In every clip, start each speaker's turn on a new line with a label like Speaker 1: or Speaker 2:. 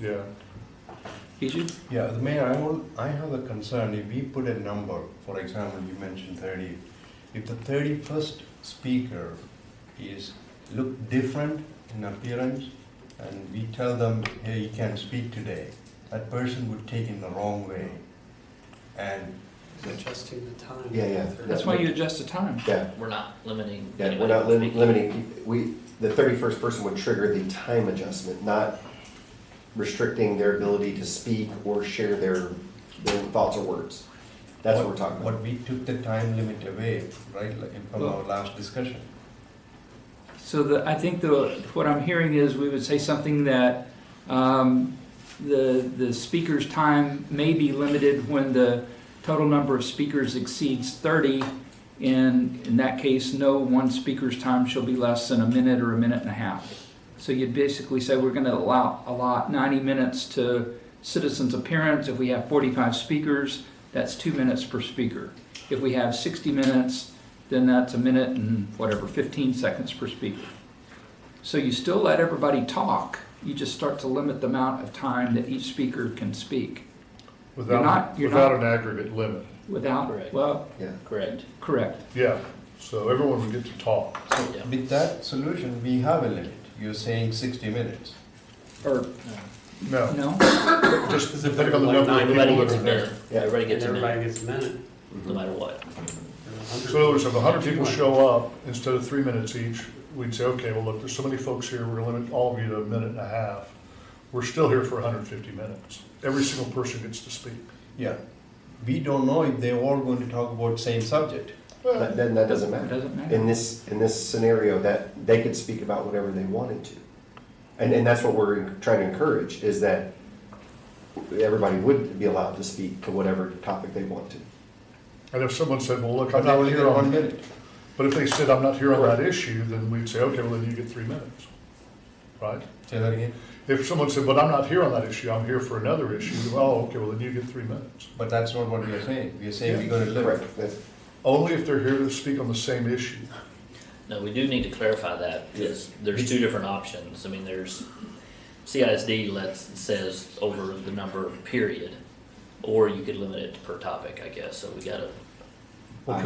Speaker 1: Yeah.
Speaker 2: Egypt?
Speaker 1: Yeah, the mayor, I will, I have a concern, if we put a number, for example, you mentioned thirty, if the thirty-first speaker is, look different in appearance, and we tell them, hey, you can't speak today, that person would take in the wrong way. And,
Speaker 3: Adjusting the time.
Speaker 4: Yeah, yeah.
Speaker 2: That's why you adjust the time.
Speaker 4: Yeah,
Speaker 5: We're not limiting.
Speaker 4: yeah, we're
Speaker 5: anybody
Speaker 4: not
Speaker 5: from
Speaker 4: lim-
Speaker 5: speaking.
Speaker 4: limiting, we, the thirty-first person would trigger the time adjustment, not restricting their ability to speak or share their, their thoughts or words. That's what we're talking about.
Speaker 1: but we took the time limit away, right, like from our last discussion.
Speaker 2: So the, I think the, what I'm hearing is we would say something that, um, the, the speaker's time may be limited when the total number of speakers exceeds thirty. And in that case, no one speaker's time shall be less than a minute or a minute and a half. So you'd basically say we're gonna allow, allot ninety minutes to citizens' appearance. If we have forty-five speakers, that's two minutes per speaker. If we have sixty minutes, then that's a minute and whatever, 15 seconds per speaker. So you still let everybody talk, you just start to limit the amount of time that each speaker can speak You're not-
Speaker 6: Without,
Speaker 2: you're
Speaker 6: without
Speaker 2: not-
Speaker 6: an aggregate limit,
Speaker 2: without,
Speaker 5: Correct.
Speaker 2: well,
Speaker 4: Yeah,
Speaker 5: Correct.
Speaker 2: correct.
Speaker 6: yeah, so everyone would get to talk.
Speaker 5: Yeah.
Speaker 1: With that solution, we have a limit, you're saying sixty minutes.
Speaker 2: Or,
Speaker 6: No,
Speaker 2: no?
Speaker 6: just
Speaker 3: if
Speaker 6: depending on the
Speaker 3: everybody-
Speaker 6: number of
Speaker 5: Everybody
Speaker 6: people that
Speaker 5: gets a
Speaker 6: are there.
Speaker 5: minute.
Speaker 4: Yeah.
Speaker 5: Everybody
Speaker 3: And
Speaker 5: gets a minute,
Speaker 3: everybody gets a minute.
Speaker 4: Mm-hmm.
Speaker 5: no matter what.
Speaker 3: or a hundred.
Speaker 6: So in other words, if hundred people
Speaker 3: Two
Speaker 6: show up, instead of three minutes each, we'd say, okay, well, look, there's so many folks here, we're gonna limit all of you to a minute and a half. We're still here for hundred and fifty minutes. Every single person gets to speak.
Speaker 1: Yeah, we don't know if they're all going to talk about same subject.
Speaker 4: that, then that doesn't matter.
Speaker 2: Doesn't matter.
Speaker 4: In this, in this scenario, that they could speak about whatever they wanted to. And, and that's what we're trying to encourage, is that everybody would be allowed to speak to whatever topic they want to.
Speaker 6: And if someone said, well, look,
Speaker 1: But
Speaker 6: I'm
Speaker 1: they
Speaker 6: not
Speaker 1: only
Speaker 6: here
Speaker 1: get one
Speaker 6: on,
Speaker 1: minute.
Speaker 6: but if they said, I'm not here on that issue, then we'd say, okay, well, then you get three minutes. Right?
Speaker 1: Say that again.
Speaker 6: If someone said, but I'm not here on that issue, I'm here for another issue, well, okay, well, then you get three minutes.
Speaker 1: But that's not what we are saying. We are saying we're gonna limit.
Speaker 4: Correct, that's,
Speaker 6: Only if they're here to speak on the same issue.
Speaker 5: No, we do need to clarify that, because there's two different options. I mean, there's, CISD lets, says over the number of period, or you could limit it per topic, I guess, so we gotta,
Speaker 6: Well,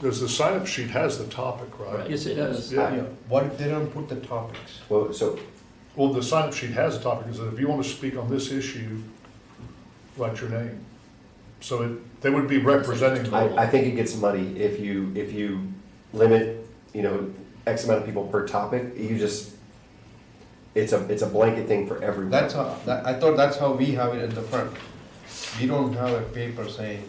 Speaker 6: because, the sign-up sheet has the topic, right?
Speaker 2: Yes, it does.
Speaker 6: Yeah,
Speaker 1: Yeah. What if they don't put the topics?
Speaker 4: well, so
Speaker 6: well, the sign-up sheet has a topic, is that if you want to speak on this issue, write your name. So it, they would be representing, the-
Speaker 4: I, I think it gets muddy if you, if you limit, you know, X amount of people per topic, you just, it's a, it's a blanket thing for everyone.
Speaker 1: That's how, that, I thought that's how we have it at the front. We don't have a paper saying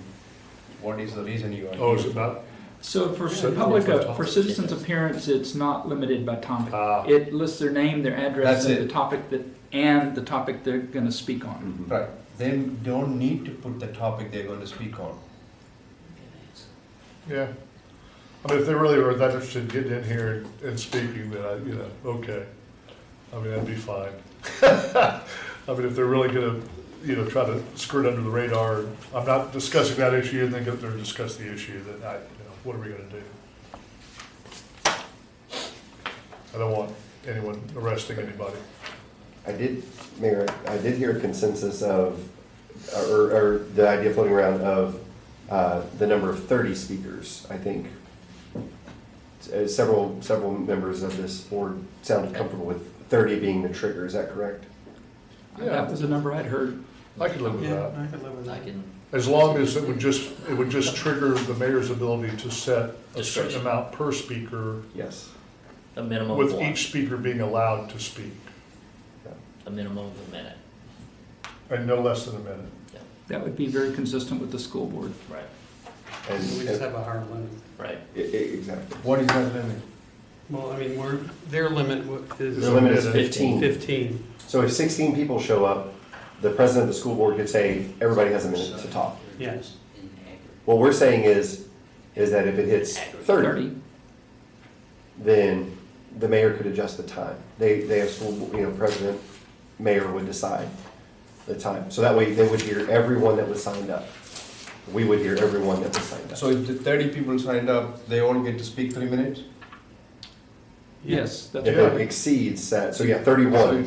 Speaker 1: what is the reason you are
Speaker 6: oh, is
Speaker 1: here.
Speaker 6: it not?
Speaker 2: So for
Speaker 6: So-
Speaker 2: public, uh,
Speaker 6: for-
Speaker 2: for citizens' appearance, it's not limited by topic.
Speaker 6: Ah,
Speaker 2: It lists their name, their address,
Speaker 1: That's
Speaker 2: and
Speaker 1: it.
Speaker 2: the topic that, and the topic they're gonna speak on.
Speaker 4: Mhm.
Speaker 1: Right, they don't need to put the topic they're going to speak on.
Speaker 6: yeah. I mean, if they really were that interested in getting in here and- and speaking, then I, you know, okay. I mean, that'd be fine. I mean, if they're really gonna, you know, try to skirt under the radar, I'm not discussing that issue, and then get up there and discuss the issue, then I, you know, what are we gonna do? I don't want anyone arresting anybody.
Speaker 4: I did, Mayor, I did hear a consensus of, or, or the idea floating around of, uh, the number of thirty speakers, I think. Uh, Several, several members of this board sounded comfortable with thirty being the trigger, is that correct?
Speaker 2: That was the number I'd heard.
Speaker 6: I could live with
Speaker 3: Yeah,
Speaker 6: that,
Speaker 3: I could live with
Speaker 5: I
Speaker 3: that.
Speaker 5: can,
Speaker 6: as long as it would just, it would just trigger the mayor's ability to set a certain
Speaker 5: Discretion.
Speaker 6: amount per speaker,
Speaker 4: Yes.
Speaker 5: a minimum of
Speaker 6: with
Speaker 5: one,
Speaker 6: each speaker being allowed to speak,
Speaker 5: a minimum of a minute,
Speaker 6: and no less than a minute.
Speaker 2: That would be very consistent with the school board.
Speaker 5: right,
Speaker 4: And, uh,
Speaker 3: So we just have a hard limit.
Speaker 5: right.
Speaker 4: e- e- exactly.
Speaker 1: What is that limit?
Speaker 3: Well, I mean, we're, their limit wa-
Speaker 4: The
Speaker 3: is
Speaker 4: limit is fifteen.
Speaker 5: Fifteen.
Speaker 3: fifteen.
Speaker 4: So if sixteen people show up, the president of the school board could say, everybody has a minute to talk.
Speaker 3: Yes.
Speaker 4: What we're saying is, is that if it hits thirty,
Speaker 2: Thirty.
Speaker 4: then the mayor could adjust the time. They, they have school, you know, president, mayor would decide the time. So that way they would hear everyone that was signed up. We would hear everyone that was signed up.
Speaker 1: So if the thirty people signed up, they all get to speak three minutes?
Speaker 2: Yes, that's
Speaker 4: If
Speaker 2: right.
Speaker 4: it exceeds that, so yeah, thirty-one.